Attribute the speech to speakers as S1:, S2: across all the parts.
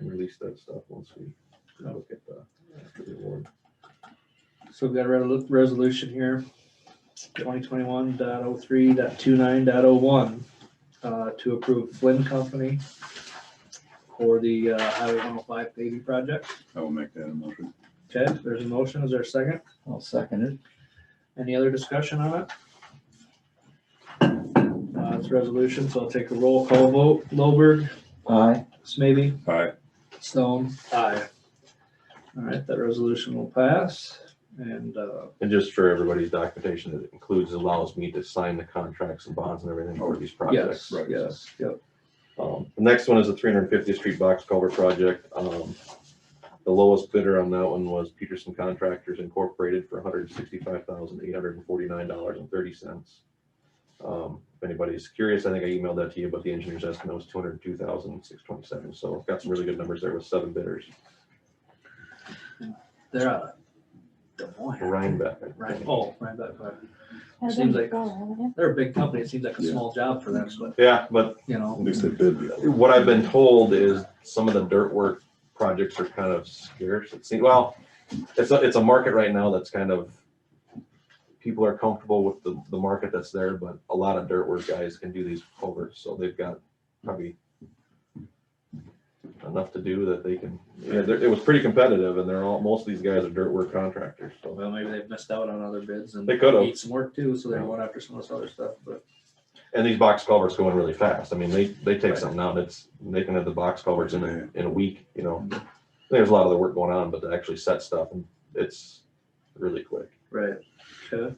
S1: release that stuff once we look at the the award.
S2: So we've got a re- resolution here, twenty twenty-one dot oh three dot two nine dot oh one, uh, to approve Flynn Company for the uh, Highway one oh five paving project.
S3: I will make that a motion.
S2: Okay, there's a motion, is there a second?
S4: I'll second it.
S2: Any other discussion on it? Uh, it's a resolution, so I'll take a roll call vote. Lowberg,
S4: Aye.
S2: Smithy,
S3: Aye.
S2: Stone. Aye. All right, that resolution will pass and, uh,
S1: And just for everybody's documentation, it includes, allows me to sign the contracts and bonds and everything for these projects.
S2: yes,
S3: right.
S2: yes, yep.
S1: Um, the next one is the three hundred and fiftieth street box culvert project. Um, the lowest bidder on that one was Peterson Contractors Incorporated for hundred and sixty-five thousand, eight hundred and forty-nine dollars and thirty cents. Um, if anybody's curious, I think I emailed that to you, but the engineer's estimate was two hundred and two thousand, six twenty-seven. So I've got some really good numbers there with seven bidders.
S2: They're out of Des Moines.
S1: Rhinebeck. I think.
S2: Right, oh, right, that part.
S5: Has
S2: Seems
S5: been
S2: like-
S5: before, haven't it?
S2: They're a big company. It seems like a
S3: Yeah.
S2: small job for them, but,
S1: Yeah, but
S2: you
S3: At
S2: know,
S3: least they bid before.
S1: what I've been told is some of the dirt work projects are kind of scarce. It seems, well, it's a, it's a market right now that's kind of, people are comfortable with the, the market that's there, but a lot of dirt work guys can do these culverts, so they've got probably enough to do that they can, yeah, they're- it was pretty competitive and they're all, most of these guys are dirt work contractors, so.
S2: well, maybe they've missed out on other bids and
S1: They could've.
S2: Need some work too, so they're going after some of this other stuff, but
S1: And these box culverts go in really fast. I mean, they, they take something out, it's, they can have the box culverts in a, in a week, you know. There's a lot of the work going on, but to actually set stuff and it's really quick.
S2: right. Okay.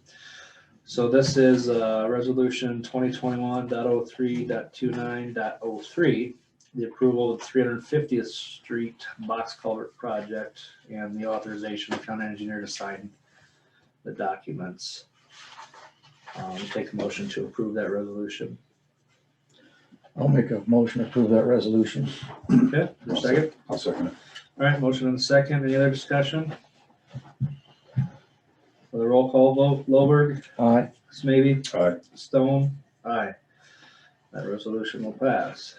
S2: So this is, uh, resolution twenty twenty-one dot oh three dot two nine dot oh three. The approval of three hundred and fiftieth street box culvert project and the authorization of county engineer to sign the documents. Um, take a motion to approve that resolution.
S4: I'll make a motion to approve that resolution.
S2: Okay, your second.
S3: I'll second it.
S2: All right, motion and a second. Any other discussion? For the roll call vote, Lowberg,
S4: Aye.
S2: Smithy,
S3: Aye.
S2: Stone, aye. That resolution will pass.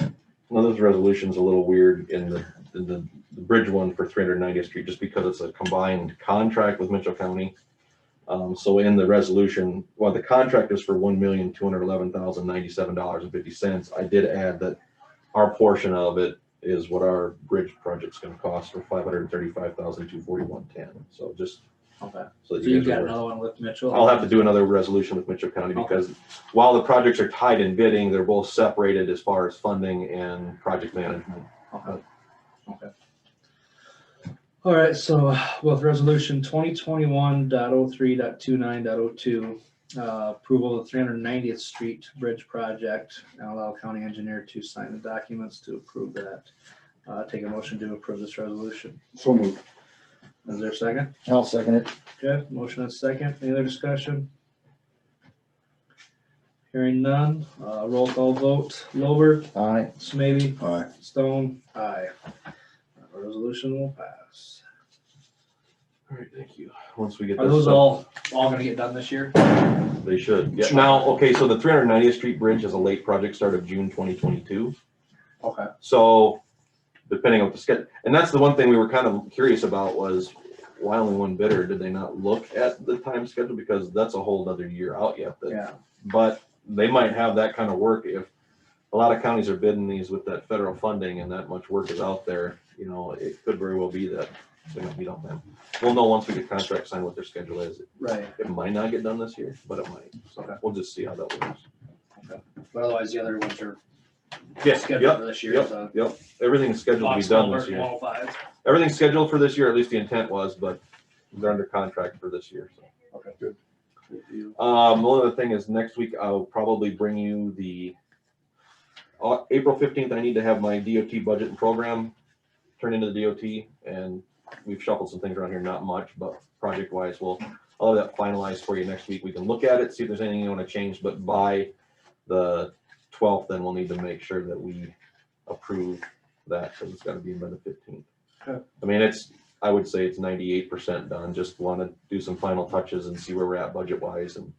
S1: Now, this resolution's a little weird in the, in the, the bridge one for three hundred ninetieth street, just because it's a combined contract with Mitchell County. Um, so in the resolution, while the contract is for one million, two hundred eleven thousand, ninety-seven dollars and fifty cents, I did add that our portion of it is what our bridge project's gonna cost for five hundred and thirty-five thousand, two forty-one, ten. So just
S2: Okay,
S1: so
S2: so
S1: that you
S2: you've
S1: guys are
S2: got
S1: aware.
S2: another one with Mitchell?
S1: I'll have to do another resolution with Mitchell County
S2: Okay.
S1: because while the projects are tied in bidding, they're both separated as far as funding and project management.
S2: Okay. Okay. All right, so with resolution twenty twenty-one dot oh three dot two nine dot oh two, uh, approval of three hundred ninetieth street bridge project, and allow county engineer to sign the documents to approve that. Uh, take a motion to approve this resolution.
S3: So moved.
S2: Is there a second?
S4: I'll second it.
S2: Okay, motion and second. Any other discussion? Hearing none, uh, roll call vote. Lowberg,
S4: Aye.
S2: Smithy,
S3: Aye.
S2: Stone, aye. That Resolution will pass.
S1: All right, thank you. Once we get
S2: Are
S1: this,
S2: those
S1: stuff,
S2: all, all gonna get done this year?
S1: they should. Yeah, now, okay, so the three hundred ninetieth street bridge is a late project start of June twenty twenty-two.
S2: Okay.
S1: So depending on the schedule, and that's the one thing we were kind of curious about was why only one bidder? Did they not look at the time schedule? Because that's a whole other year out yet that
S2: Yeah,
S1: but they might have that kind of work if a lot of counties are bidding these with that federal funding and that much work is out there, you know, it could very well be that they might be done then. We'll know once we get contract signed what their schedule is.
S2: right.
S1: It might not get done this year, but it might. So we'll just see how that works.
S2: But otherwise, the other ones are
S1: Yes,
S2: scheduled
S1: yep,
S2: for this year,
S1: yep,
S2: so.
S1: yep. Everything's scheduled to be
S2: Box
S1: done
S2: culvert,
S1: this year.
S2: 105.
S1: Everything's scheduled for this year, at least the intent was, but they're under contract for this year, so. Um, one other thing is next week I'll probably bring you the uh, April fifteenth. I need to have my DOT budget and program turned into the DOT, and we've shuffled some things around here. Not much, but project wise, we'll I'll have that finalized for you next week. We can look at it, see if there's anything you want to change. But by the twelfth, then we'll need to make sure that we approve that because it's got to be in by the fifteenth.
S2: Okay.
S1: I mean, it's I would say it's ninety-eight percent done, just wanna do some final touches and see where we're at budget wise and.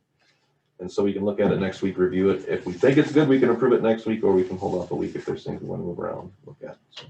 S1: And so we can look at it next week, review it, if we think it's good, we can approve it next week, or we can hold off a week if there's things we wanna move around, look at. so.